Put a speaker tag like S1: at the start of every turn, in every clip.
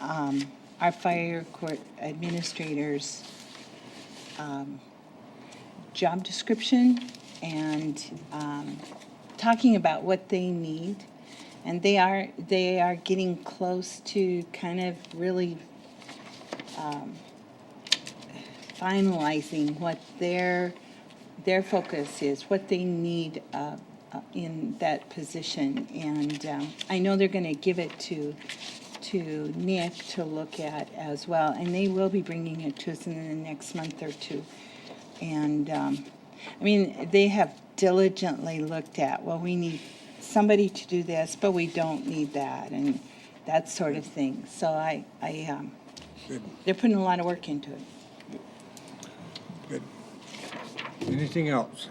S1: um, our fire court administrator's um, job description and um, talking about what they need. And they are, they are getting close to kind of really finalizing what their, their focus is, what they need uh, uh, in that position. And um, I know they're going to give it to, to Nick to look at as well. And they will be bringing it to us in the next month or two. And, um, I mean, they have diligently looked at, well, we need somebody to do this, but we don't need that, and that sort of thing. So I, I, um, they're putting a lot of work into it.
S2: Good. Anything else?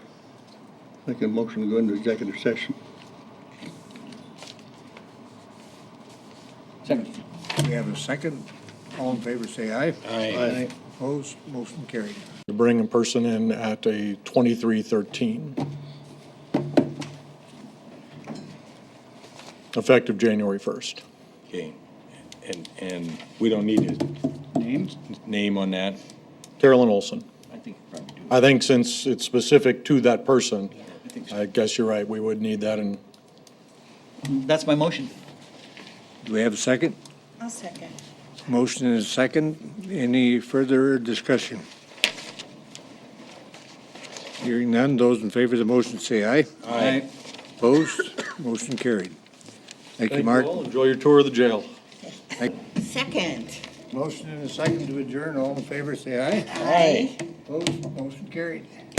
S3: Make a motion to go into executive session.
S4: Second.
S2: We have a second. All in favor, say aye.
S4: Aye.
S2: Opposed, motion carried.
S5: to bring a person in at a 2313. Effective January 1st.
S6: Okay, and, and we don't need his
S4: Names?
S6: name on that?
S5: Carolyn Olson.
S4: I think you probably do.
S5: I think since it's specific to that person, I guess you're right, we would need that in
S4: That's my motion.
S2: Do we have a second?
S1: I'll second.
S2: Motion is second. Any further discussion? Hearing none, those in favor of the motion say aye.
S4: Aye.
S2: Opposed, motion carried. Thank you, Mark.
S5: Enjoy your tour of the jail.
S1: Second.
S2: Motion and a second to adjourn. All in favor, say aye.
S1: Aye.
S2: Opposed, motion carried.